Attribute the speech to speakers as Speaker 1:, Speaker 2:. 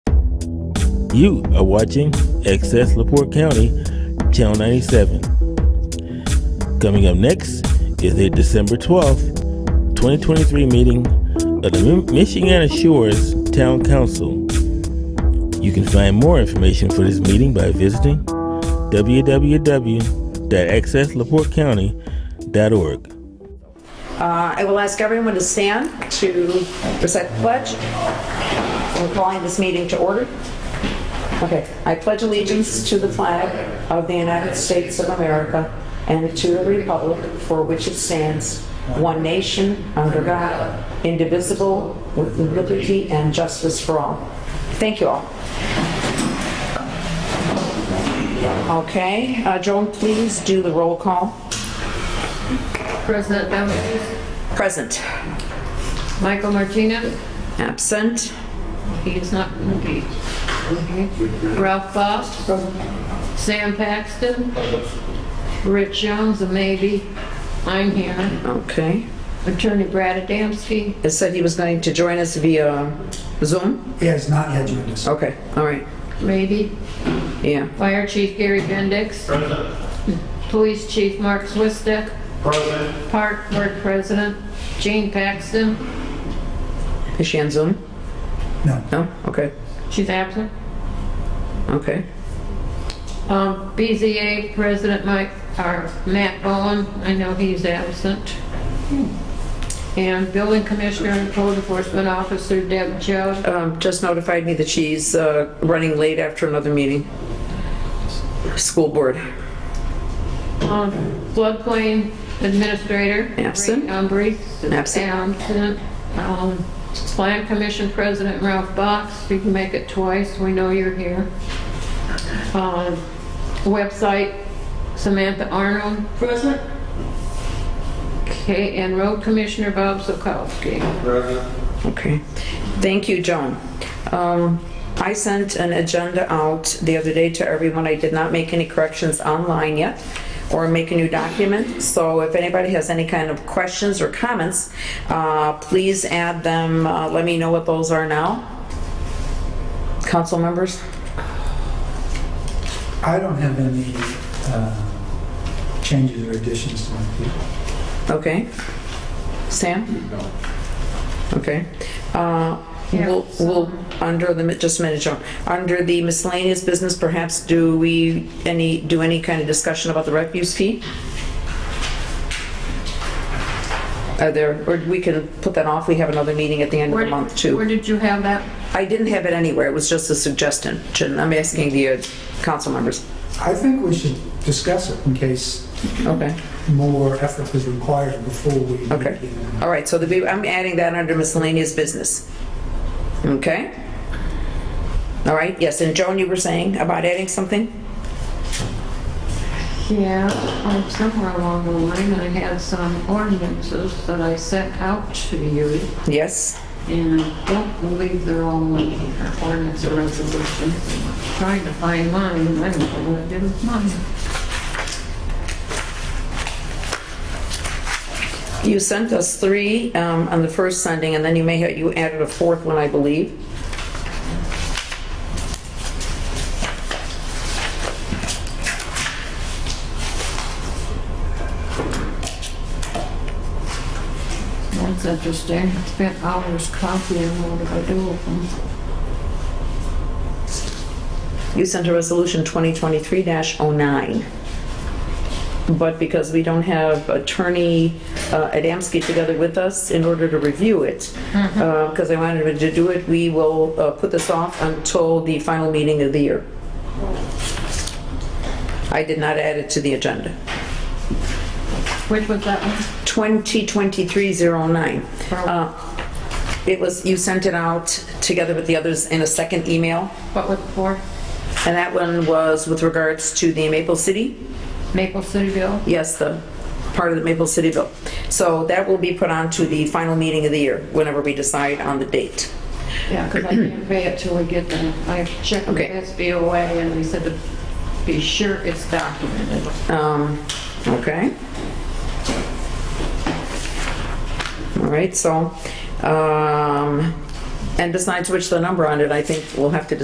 Speaker 1: You are watching Excess LaPorte County, Channel 97. Coming up next is the December 12th, 2023 meeting of the Mi- Michiana Shores Town Council. You can find more information for this meeting by visiting www.accesslaportecounty.org.
Speaker 2: Uh, I will ask everyone to stand to recite the pledge. We're calling this meeting to order. Okay, I pledge allegiance to the flag of the United States of America and to the republic for which it stands, one nation, under God, indivisible, with liberty and justice for all. Thank you all. Okay, uh, Joan, please do the roll call.
Speaker 3: President Dominic,
Speaker 2: Present.
Speaker 3: Michael Martinez,
Speaker 2: Absent.
Speaker 3: he is not engaged. Okay. Ralph Foss, Sam Paxton, Rich Jones, a maybe, I'm here.
Speaker 2: Okay.
Speaker 3: Attorney Brad Adamski,
Speaker 2: It said he was going to join us via Zoom?
Speaker 4: He has not yet joined us.
Speaker 2: Okay, all right,
Speaker 3: maybe,
Speaker 2: yeah.
Speaker 3: Fire Chief Gary Bendix, Police Chief Mark Swistek,
Speaker 5: President,
Speaker 3: Park Board President Jean Paxton,
Speaker 2: Is she on Zoom?
Speaker 4: No.
Speaker 2: No? Okay,
Speaker 3: she's absent.
Speaker 2: okay.
Speaker 3: Um, BZA President Mike, or Matt Bowen, I know he's absent. And Building Commissioner and Code Enforcement Officer Deb Judd.
Speaker 2: Um, Just notified me that she's uh, running late after another meeting. School board.
Speaker 3: Um, Floodplain Administrator.
Speaker 2: Absent.
Speaker 3: Ray Umbry. is
Speaker 2: Absent.
Speaker 3: Absent. Um, Plan Commission President Ralph Box, you can make it twice, we know you're here. Um, Website Samantha Arnold. President. Okay, and Road Commissioner Bob Sokowski.
Speaker 2: Okay. Thank you, Joan. Um, I sent an agenda out the other day to everyone. I did not make any corrections online yet or make a new document. So if anybody has any kind of questions or comments, uh, please add them. Uh, Let me know what those are now. Council members?
Speaker 4: I don't have any uh, changes or additions to my people.
Speaker 2: Okay. Sam?
Speaker 5: No.
Speaker 2: Okay. Uh,
Speaker 3: Yeah.
Speaker 2: We'll, we'll, under the, just a minute, Joan. Under the miscellaneous business, perhaps, do we, any, do any kind of discussion about the refuse fee? Are there, or we can put that off, we have another meeting at the end of
Speaker 3: Where
Speaker 2: the
Speaker 3: did-
Speaker 2: month, too.
Speaker 3: Where did you have that?
Speaker 2: I didn't have it anywhere, it was just a suggestion. I'm asking the uh, council members.
Speaker 4: I think we should discuss it in case
Speaker 2: Okay.
Speaker 4: more effort is required before we. make
Speaker 2: Okay.
Speaker 4: any-
Speaker 2: All right, so the, be- I'm adding that under miscellaneous business. Okay? All right, yes, and Joan, you were saying about adding something?
Speaker 3: Yeah, um, somewhere along the line, I had some ordinances that I sent out to you,
Speaker 2: Yes?
Speaker 3: and I don't believe they're all in here, ordinance or resolution. Trying to find mine, and I don't know what I did with mine.
Speaker 2: You sent us three um, on the first sending, and then you may have, you added a fourth one, I believe.
Speaker 3: That's interesting, I spent hours copying what did I do with them.
Speaker 2: You sent a resolution 2023-09. But because we don't have Attorney uh, Adamski together with us in order to review it, because I wanted him to do it, we will uh, put this off until the final meeting of the year. I did not add it to the agenda.
Speaker 3: Which was that one?
Speaker 2: 2023-09.
Speaker 3: Wow.
Speaker 2: Uh, oh It was, you sent it out together with the others in a second email,
Speaker 3: What was it for?
Speaker 2: and that one was with regards to the Maple City
Speaker 3: Maple City Bill?
Speaker 2: Yes, the part of the Maple City bill. So that will be put on to the final meeting of the year, whenever we decide on the date.
Speaker 3: Yeah, because I can't pay it till we get the, I checked with
Speaker 2: Okay.
Speaker 3: SBOA, and they said to be sure it's documented.
Speaker 2: Um, okay? All right, so, um, and besides which, the number on it, I think we'll have to